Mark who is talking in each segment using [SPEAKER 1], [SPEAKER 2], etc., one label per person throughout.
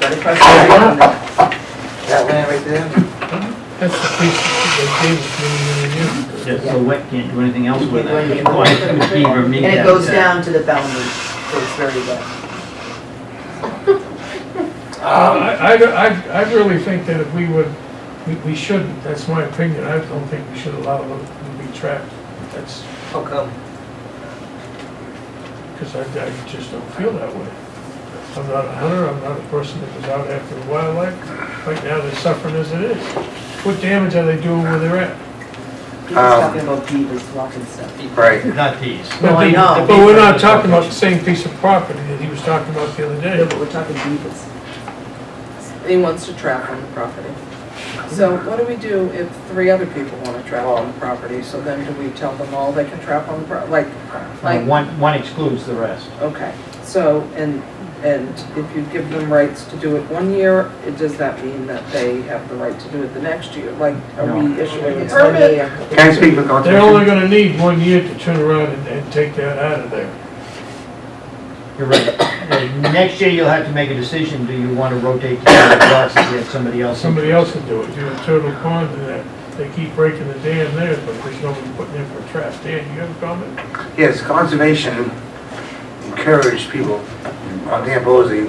[SPEAKER 1] That's right there.
[SPEAKER 2] That land right there?
[SPEAKER 3] That's the piece that they gave us many, many years ago.
[SPEAKER 1] Yeah, so wet can't do anything else with that.
[SPEAKER 2] Yeah.
[SPEAKER 1] Well, McKeever,
[SPEAKER 2] And
[SPEAKER 1] Mead,
[SPEAKER 2] it goes
[SPEAKER 1] that's
[SPEAKER 2] down to the boundary, so it's very wet.
[SPEAKER 3] Uh,
[SPEAKER 4] Um,
[SPEAKER 3] I, I, I- I really think that if we would, we, we shouldn't, that's my opinion, I don't think we should allow them to be trapped. That's,
[SPEAKER 2] How Oh, come?
[SPEAKER 3] because I, I just don't feel that way. I'm not a hunter, I'm not a person that was out after wildlife, right now they're suffering as it is. What damage are they doing where they're at?
[SPEAKER 2] He was talking about beavers walking stuff.
[SPEAKER 4] Right.
[SPEAKER 1] it. Not these.
[SPEAKER 2] No, I know.
[SPEAKER 3] But we're not talking about the same piece of property that he was talking about the other
[SPEAKER 2] Yeah,
[SPEAKER 3] day.
[SPEAKER 2] but we're talking beavers.
[SPEAKER 5] He wants to trap on the property. So what do we do if three other people want to trap on the property? So then do we tell them all they can trap on the pro, like,
[SPEAKER 1] Uh,
[SPEAKER 5] like,
[SPEAKER 1] One, one excludes the rest.
[SPEAKER 5] okay. So, and, and if you give them rights to do it one year, it- does that mean that they have the right to do it the next year? Like, are
[SPEAKER 1] No.
[SPEAKER 5] we issuing a permit?
[SPEAKER 4] Can I speak for
[SPEAKER 3] They're
[SPEAKER 4] conservation?
[SPEAKER 3] only gonna need one year to turn around and, and take that out of there.
[SPEAKER 1] You're right. Uh, Next year, you'll have to make a decision, do you want to rotate the grass and get somebody else? in?
[SPEAKER 3] Somebody else would do it, do a turtle pond and that, they keep breaking the dam there, but there's nobody putting in for a trap. Dan, you have a comment?
[SPEAKER 4] Yes, conservation encouraged people on Dan Bosey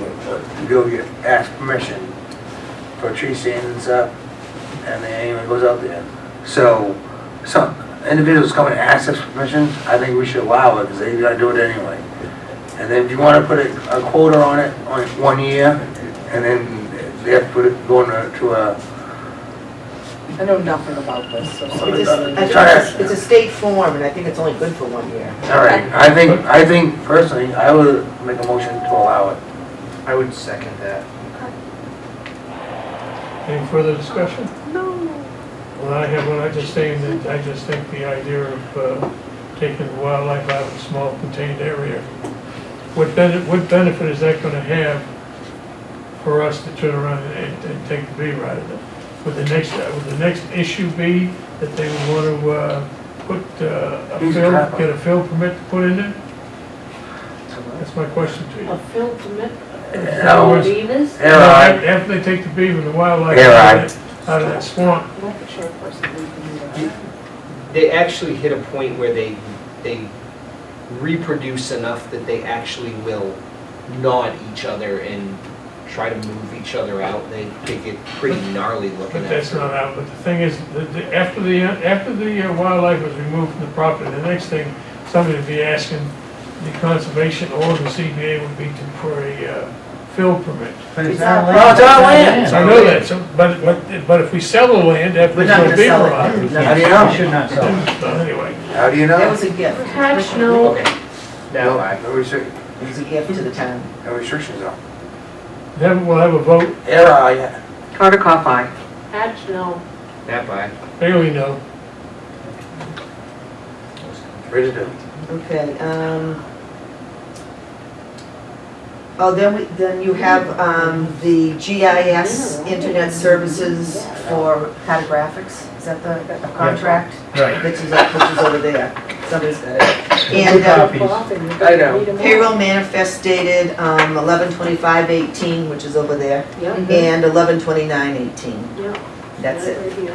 [SPEAKER 4] to go get, ask permission for tree stands up, and then anyone goes out there. So, some individuals come and ask us permission, I think we should allow it, because they gotta do it anyway. And then if you wanna put a, a quota on it, on one year, and then they have to put it, go into to a,
[SPEAKER 5] I know nothing about this, so somebody.
[SPEAKER 2] It's a- I think it's a- it's a state form, and I think it's only good for one year.
[SPEAKER 4] all right, I think, I think personally, I would make a motion to allow it.
[SPEAKER 6] I would second that.
[SPEAKER 3] Any further discussion? No. Well, I have one, I just saying that, I just think the idea of, uh, taking wildlife out of a small contained area, what benefit, what benefit is that gonna have for us to turn around and, and take the beaver out of it? Would the next, would the next issue be that they would wanna, uh, put, uh, a
[SPEAKER 4] Use a
[SPEAKER 3] fill,
[SPEAKER 4] trap.
[SPEAKER 3] get a fill permit to put in it? That's my question to you.
[SPEAKER 7] A film permit
[SPEAKER 3] In other
[SPEAKER 4] No,
[SPEAKER 7] for
[SPEAKER 3] words,
[SPEAKER 7] beavers?
[SPEAKER 4] Air eye.
[SPEAKER 3] After they take the beaver, and the wildlife
[SPEAKER 4] Air
[SPEAKER 3] out
[SPEAKER 4] eye.
[SPEAKER 3] of that- out of that swamp,
[SPEAKER 6] They actually hit a point where they, they reproduce enough that they actually will gnaw at each other and try to move each other out. They, they get pretty gnarly looking
[SPEAKER 3] But
[SPEAKER 6] at
[SPEAKER 3] that's
[SPEAKER 6] it.
[SPEAKER 3] not out, but the thing is, the, the, after the, after the uh, wildlife was removed from the property, the next thing, somebody would be asking the conservation or the CBA would be to, for a, uh, fill permit.
[SPEAKER 1] But it's not land.
[SPEAKER 4] No, it's not land.
[SPEAKER 3] I know that, so, but, but, but if we sell the land, after
[SPEAKER 2] We're
[SPEAKER 3] we
[SPEAKER 2] not
[SPEAKER 3] put a
[SPEAKER 2] gonna
[SPEAKER 3] beaver
[SPEAKER 2] sell it.
[SPEAKER 3] on it,
[SPEAKER 4] How do you
[SPEAKER 1] You
[SPEAKER 4] know?
[SPEAKER 1] should not sell it.
[SPEAKER 3] so anyway.
[SPEAKER 4] How do you
[SPEAKER 2] That
[SPEAKER 4] know?
[SPEAKER 2] was a gift.
[SPEAKER 7] Attached, no.
[SPEAKER 6] Okay, now I,
[SPEAKER 4] No restric-
[SPEAKER 2] It was a gift to the town.
[SPEAKER 4] no restrictions on.
[SPEAKER 3] Then we'll have a vote,
[SPEAKER 4] Air eye,
[SPEAKER 2] Carter Koff, aye.
[SPEAKER 7] Attached, no.
[SPEAKER 6] that by.
[SPEAKER 3] Bailey, no.
[SPEAKER 4] ready to do.
[SPEAKER 2] Okay, um, oh, then we, then you have, um, the GIS Internet Services for cartographics. Is that the, a contract?
[SPEAKER 1] Right.
[SPEAKER 2] Which is, which is over there. Somebody's got it.
[SPEAKER 1] Two
[SPEAKER 2] And, uh,
[SPEAKER 1] copies.
[SPEAKER 7] I
[SPEAKER 6] know.
[SPEAKER 2] Payroll manifest dated um, 11/25/18, which is over there,
[SPEAKER 7] Yeah,
[SPEAKER 2] and 11/29/18.
[SPEAKER 7] yeah.
[SPEAKER 2] That's
[SPEAKER 7] that
[SPEAKER 2] it.
[SPEAKER 7] right here.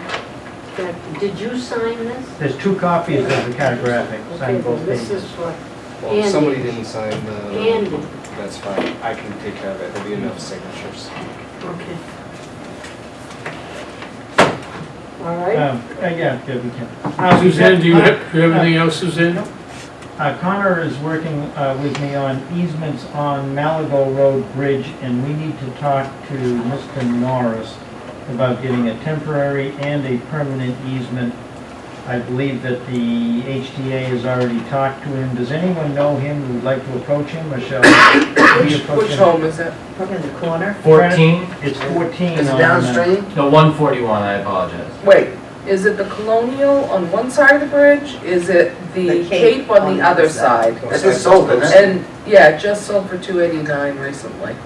[SPEAKER 7] That- Did you sign this?
[SPEAKER 1] There's two copies of the cartographic,
[SPEAKER 7] Okay,
[SPEAKER 1] sign
[SPEAKER 7] well,
[SPEAKER 1] both
[SPEAKER 7] this
[SPEAKER 1] pages.
[SPEAKER 7] is for
[SPEAKER 6] Well, if
[SPEAKER 7] Andy.
[SPEAKER 6] somebody didn't sign the,
[SPEAKER 7] Andy.
[SPEAKER 6] that's fine. I can take care of it. There'll be enough signatures.
[SPEAKER 7] Okay. All right.
[SPEAKER 1] Um, uh, Yeah, yeah, we can. Uh, we've
[SPEAKER 3] Suzanne, do you
[SPEAKER 1] got-
[SPEAKER 3] have, do you have anything else, Suzanne?
[SPEAKER 1] Uh, Connor is working uh, with me on easements on Malago Road Bridge, and we need to talk to Mr. Norris about getting a temporary and a permanent easement. I believe that the HTA has already talked to him. Does anyone know him who would like to approach him, or shall we
[SPEAKER 5] Which,
[SPEAKER 1] approach
[SPEAKER 5] which
[SPEAKER 1] him?
[SPEAKER 5] home is it?
[SPEAKER 2] Probably in the corner.
[SPEAKER 8] 14?
[SPEAKER 1] It's 14
[SPEAKER 4] Is it
[SPEAKER 1] on, uh,
[SPEAKER 4] downstream?
[SPEAKER 8] No, 141, I apologize.
[SPEAKER 5] Wait, is it the Colonial on one side of the bridge? Is it the Cape on the other side?
[SPEAKER 4] That's just sold, isn't it?
[SPEAKER 5] And, yeah, it just sold for two eighty-nine recently.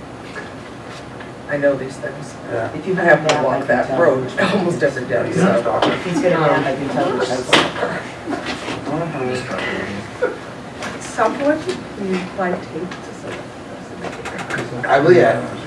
[SPEAKER 5] I know these things.
[SPEAKER 4] Yeah.
[SPEAKER 2] If
[SPEAKER 5] I
[SPEAKER 2] you
[SPEAKER 5] have to walk that road almost every day,
[SPEAKER 4] He's not
[SPEAKER 5] so.
[SPEAKER 4] talking.
[SPEAKER 2] If he's got a map, I can tell you. that's-
[SPEAKER 6] Mm-hmm.
[SPEAKER 5] Someone, you might take uh, to some.
[SPEAKER 4] I believe, I-